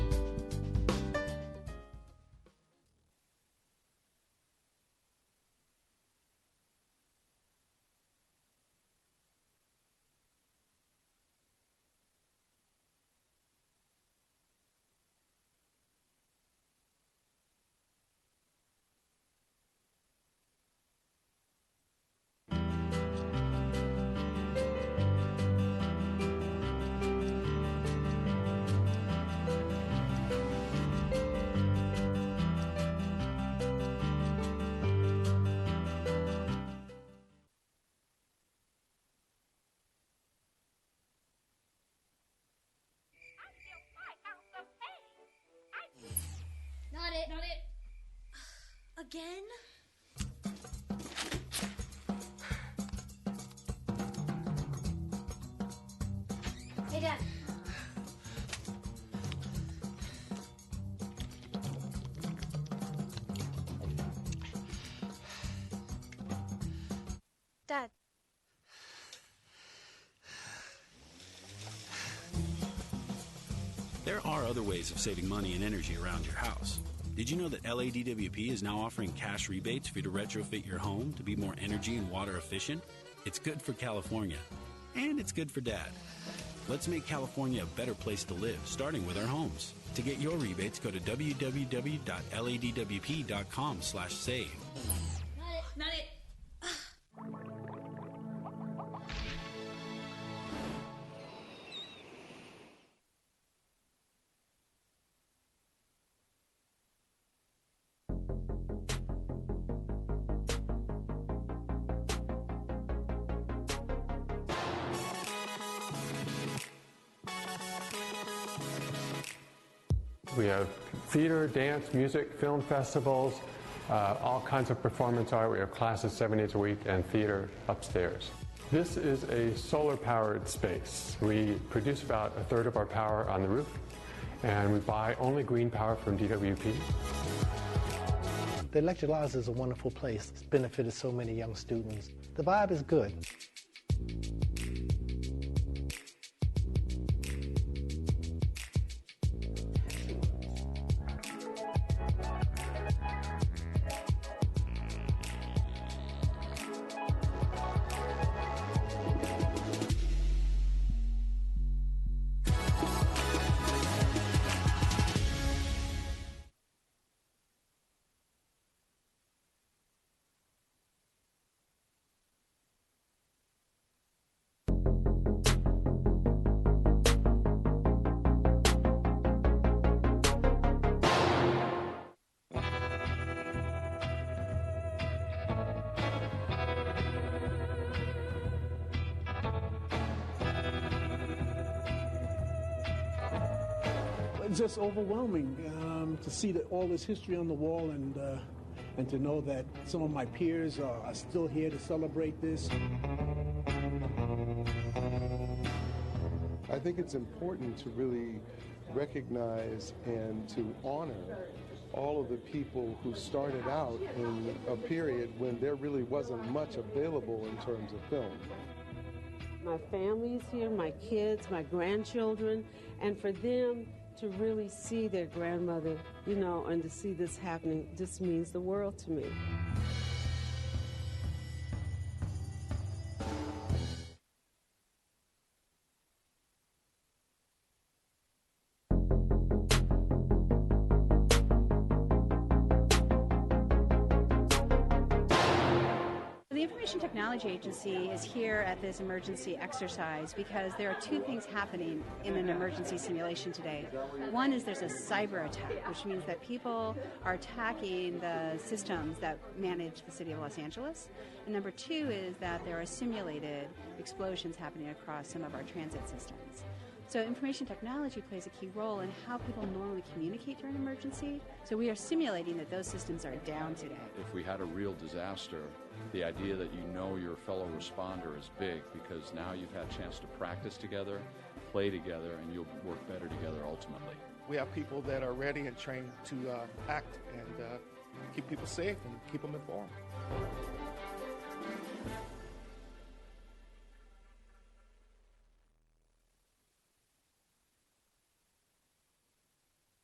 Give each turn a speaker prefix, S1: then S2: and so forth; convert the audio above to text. S1: are other ways of saving money and energy around your house. Did you know that LADWP is now offering cash rebates for you to retrofit your home to be more energy and water efficient? It's good for California, and it's good for Dad. Let's make California a better place to live, starting with our homes. To get your rebates, go to www.ladwp.com slash save.
S2: Not it. Not it.
S3: We have theater, dance, music, film festivals, uh, all kinds of performance art. We have classes seven days a week and theater upstairs. This is a solar powered space. We produce about a third of our power on the roof, and we buy only green power from DWP.
S4: The Lecture Lives is a wonderful place. It's benefited so many young students. The vibe is good.
S5: It's just overwhelming um, to see that all this history on the wall and uh, and to know that some of my peers are, are still here to celebrate this.
S6: I think it's important to really recognize and to honor all of the people who started out in a period when there really wasn't much available in terms of film.
S7: My family's here, my kids, my grandchildren, and for them to really see their grandmother, you know, and to see this happening just means the world to me.
S8: The Information Technology Agency is here at this emergency exercise because there are two things happening in an emergency simulation today. One is there's a cyber attack, which means that people are attacking the systems that manage the city of Los Angeles. And number two is that there are simulated explosions happening across some of our transit systems. So information technology plays a key role in how people normally communicate during an emergency. So we are simulating that those systems are down today.
S9: If we had a real disaster, the idea that you know your fellow responder is big because now you've had a chance to practice together, play together, and you'll work better together ultimately.
S10: We have people that are ready and trained to uh, act and uh, keep people safe and keep them informed.